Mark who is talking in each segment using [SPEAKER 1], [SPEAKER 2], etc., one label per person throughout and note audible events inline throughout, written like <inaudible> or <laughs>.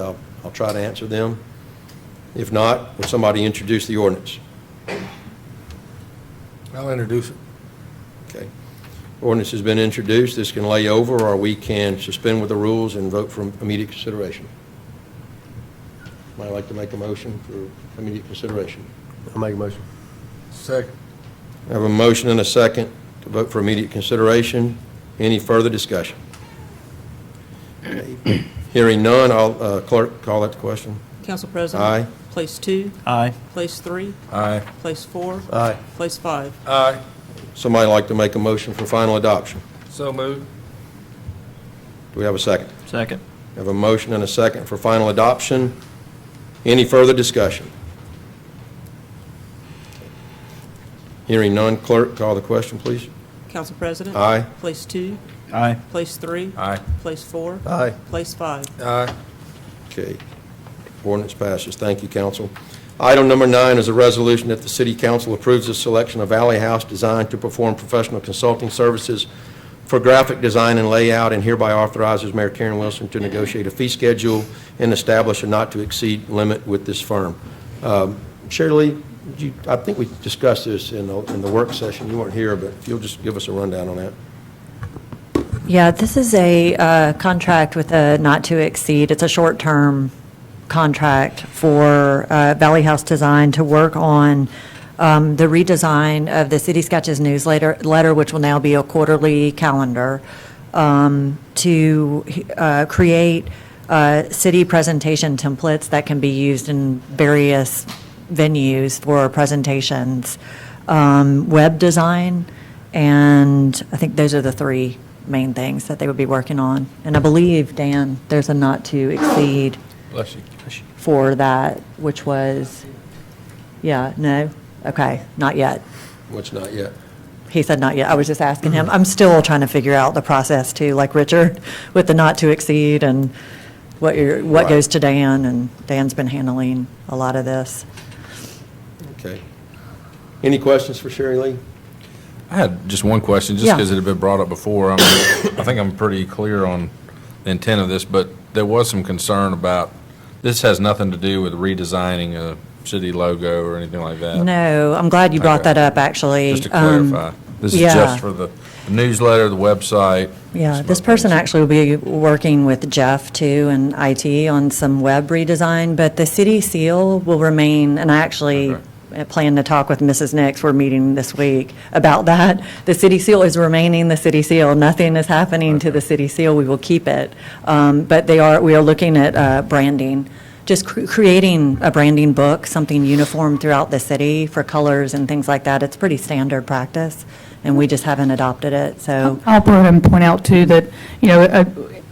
[SPEAKER 1] I'll, I'll try to answer them. If not, will somebody introduce the ordinance?
[SPEAKER 2] I'll introduce it.
[SPEAKER 1] Okay. Ordinance has been introduced, this can lay over, or we can suspend with the rules and vote for immediate consideration. Might like to make a motion for immediate consideration.
[SPEAKER 3] I'll make a motion.
[SPEAKER 2] Second.
[SPEAKER 1] I have a motion and a second to vote for immediate consideration. Any further discussion? Hearing none, I'll, uh, clerk, call that the question.
[SPEAKER 4] Council President?
[SPEAKER 1] Aye.
[SPEAKER 4] Place two,
[SPEAKER 3] Aye.
[SPEAKER 4] place three,
[SPEAKER 2] Aye.
[SPEAKER 4] place four,
[SPEAKER 3] Aye.
[SPEAKER 4] place five.
[SPEAKER 2] Aye.
[SPEAKER 1] Somebody like to make a motion for final adoption?
[SPEAKER 2] So moved.
[SPEAKER 1] Do we have a second?
[SPEAKER 3] Second.
[SPEAKER 1] We Have a motion and a second for final adoption. Any further discussion? Hearing none, clerk, call the question, please.
[SPEAKER 4] Council President?
[SPEAKER 1] Aye.
[SPEAKER 4] Place two,
[SPEAKER 3] Aye.
[SPEAKER 4] place three,
[SPEAKER 2] Aye.
[SPEAKER 4] place four,
[SPEAKER 3] Aye.
[SPEAKER 4] place five.
[SPEAKER 2] Aye.
[SPEAKER 1] Okay. Ordinance passes. Thank you, council. Item number nine is a resolution that the city council approves the selection of Alley House Design to perform professional consulting services for graphic design and layout, and hereby authorizes Mayor Karen Wilson to negotiate a fee schedule and establish a not-to-exceed limit with this firm. Um, Shirley, you, I think we discussed this in the, in the work session. You weren't here, but if you'll just give us a rundown on that.
[SPEAKER 5] Yeah, this is a uh, contract with a not to exceed, it's a short-term contract for uh, Valley House Design to work on um, the redesign of the City Sketches newsletter, letter, which will now be a quarterly calendar, um, to uh, create uh, city presentation templates that can be used in various venues for presentations, um, web design, and I think those are the three main things that they would be working on. And I believe, Dan, there's a not to exceed
[SPEAKER 2] Bless you.
[SPEAKER 5] for that, which was, yeah, no? Okay, not yet.
[SPEAKER 1] What's not yet?
[SPEAKER 5] He said not yet. I was just asking
[SPEAKER 6] Mm-hmm.
[SPEAKER 5] him. I'm still trying to figure out the process too, like Richard, <laughs> with the not to exceed and what your, what
[SPEAKER 1] Right.
[SPEAKER 5] goes to Dan, and Dan's been handling a lot of this.
[SPEAKER 1] Okay. Any questions for Sherry Lee?
[SPEAKER 6] I had just one question, just
[SPEAKER 5] Yeah.
[SPEAKER 6] because it had been brought up before. I mean, I think I'm pretty clear on the intent of this, but there was some concern about, this has nothing to do with redesigning a city logo or anything like that.
[SPEAKER 5] No, I'm glad you brought
[SPEAKER 6] Okay.
[SPEAKER 5] that up, actually.
[SPEAKER 6] Uh, Just to
[SPEAKER 5] Um,
[SPEAKER 6] clarify. This is
[SPEAKER 5] yeah.
[SPEAKER 6] just for the newsletter, the website.
[SPEAKER 5] Yeah,
[SPEAKER 6] some
[SPEAKER 5] this
[SPEAKER 6] other
[SPEAKER 5] person
[SPEAKER 6] things.
[SPEAKER 5] actually will be working with Jeff too and IT on some web redesign, but the city seal will remain, and I actually
[SPEAKER 6] Okay.
[SPEAKER 5] uh, plan to talk with Mrs. Nix, we're meeting this week about that. The city seal is remaining the city seal, nothing is happening to the city seal, we will keep it. Um, But they are, we are looking at uh, branding, just cr- creating a branding book, something uniform throughout the city for colors and things like that. It's pretty standard practice, and we just haven't adopted it, so.
[SPEAKER 7] I'll put and point out too that, you know, uh,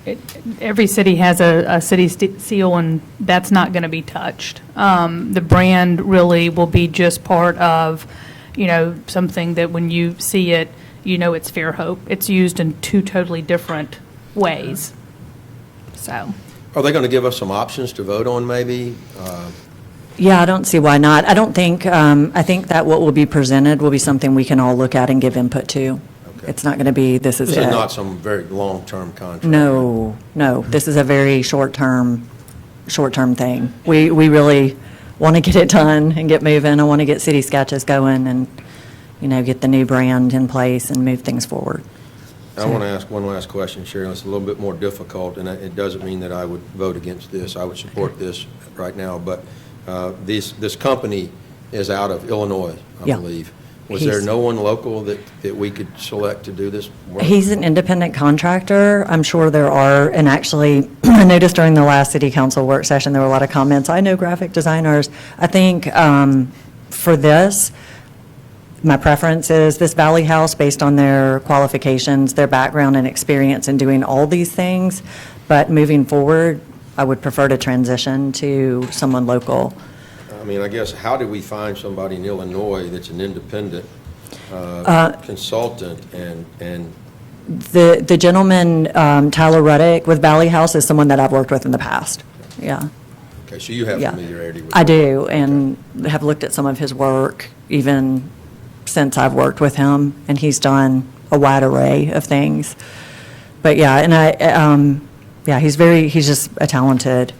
[SPEAKER 7] it- every city has a, a city st- seal and that's not going to be touched. Um, The brand really will be just part of, you know, something that when you see it, you know it's Fairhope. It's used in two totally different ways, so.
[SPEAKER 1] Are they going to give us some options to vote on, maybe? Uh,
[SPEAKER 5] Yeah, I don't see why not. I don't think, um, I think that what will be presented will be something we can all look at and give input to.
[SPEAKER 1] Okay.
[SPEAKER 5] It's not going to be, this is
[SPEAKER 1] This
[SPEAKER 5] it.
[SPEAKER 1] is not some very long-term contract.
[SPEAKER 5] No, no, this is a very short-term, short-term thing. We, we really want to get it done and get moving. I want to get city sketches going and, you know, get the new brand in place and move things forward.
[SPEAKER 1] I want to ask one last question, Sharon. It's a little bit more difficult, and it doesn't mean that I would vote against this. I would support this right now, but uh, this, this company is out of Illinois, I
[SPEAKER 5] Yeah.
[SPEAKER 1] believe. Was there
[SPEAKER 5] He's-
[SPEAKER 1] no one local that, that we could select to do this work?
[SPEAKER 5] He's an independent contractor. I'm sure there are, and actually, <clears throat> I noticed during the last city council work session, there were a lot of comments. I know graphic designers. I think um, for this, my preference is this Valley House, based on their qualifications, their background and experience in doing all these things. But moving forward, I would prefer to transition to someone local.
[SPEAKER 1] I mean, I guess, how do we find somebody in Illinois that's an independent uh, consultant and, and
[SPEAKER 5] The the gentleman, um, Tyler Ruddick with Valley House, is someone that I've worked with in the past. Yeah.
[SPEAKER 1] Okay, so you have
[SPEAKER 5] Yeah.
[SPEAKER 1] familiarity with
[SPEAKER 5] I do, and have looked at some of his work even since I've worked with him, and he's done a wide array of things. But yeah, and I, um, yeah, he's very, he's just a talented